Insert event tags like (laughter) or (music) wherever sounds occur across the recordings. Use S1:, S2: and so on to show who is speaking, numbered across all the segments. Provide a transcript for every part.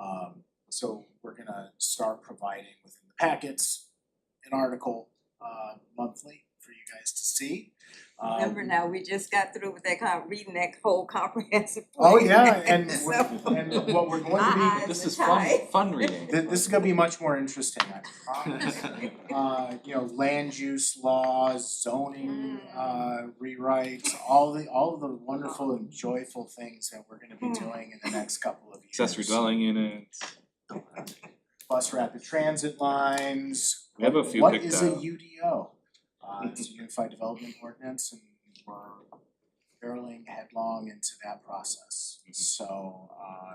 S1: Um so we're gonna start providing within the packets an article uh monthly for you guys to see. Um,
S2: Remember now, we just got through with that con, reading that whole comprehensive plan.
S1: Oh
S2: (laughs)
S1: yeah, and
S2: So,
S1: we're- and what we're going to be
S2: My eyes
S3: This
S2: are
S3: is fun,
S2: tied.
S3: fun
S1: (laughs)
S3: reading.
S1: Th- this is gonna be much more interesting, I promise.
S2: (laughs)
S3: (laughs)
S1: Uh, you know, land use laws, zoning,
S2: Mm.
S1: uh, rewrites, all the, all of the wonderful and joyful things that we're gonna be
S2: Mm.
S1: doing in the next couple of years.
S3: Accessory dwelling units.
S1: Bus rapid transit lines.
S3: We have a few
S1: What
S3: picked
S1: is a
S3: out.
S1: UDO? Uh, it's a Unified Development Ordinance and we're barreling headlong into that process.
S3: Mhm.
S1: So, uh,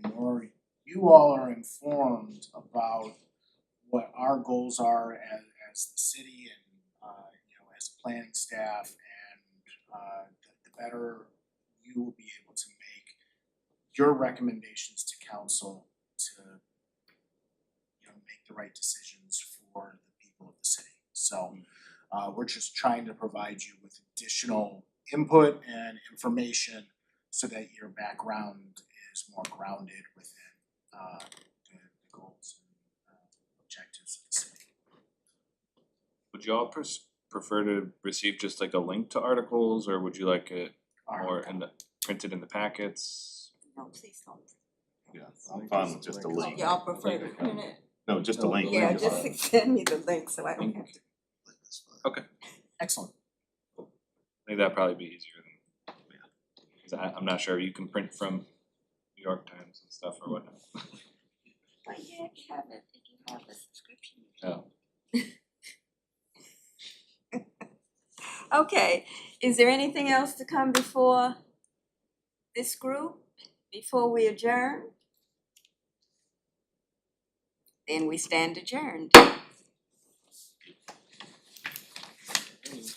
S1: the more you all are informed about what our goals are as, as the city and, uh, you know, as planning staff and, uh, the, the better you will be able to make your recommendations to council to, you know, make the right decisions for the people of the city. So, uh, we're just trying to provide you with additional input and information so that your background is more grounded within, uh, the, the goals and, uh, objectives of the city.
S3: Would y'all pres- prefer to receive just like a link to articles or would you like it
S1: All
S3: more
S1: right.
S3: in the, printed in the packets?
S2: No, please don't.
S4: Yeah, I'm fine with just a link.
S2: Y'all prefer to print it?
S4: No, just a link.
S2: Yeah, just (laughs) send me the link so I don't have to.
S1: Excellent.
S3: I think that'd probably be easier than, yeah. 'Cause I, I'm not sure, you can print from New York Times and stuff or whatnot.
S5: But yeah, you have it, if you have a subscription.
S3: Oh,
S2: Okay, is there anything else to come before this group, before we adjourn? Then we stand adjourned.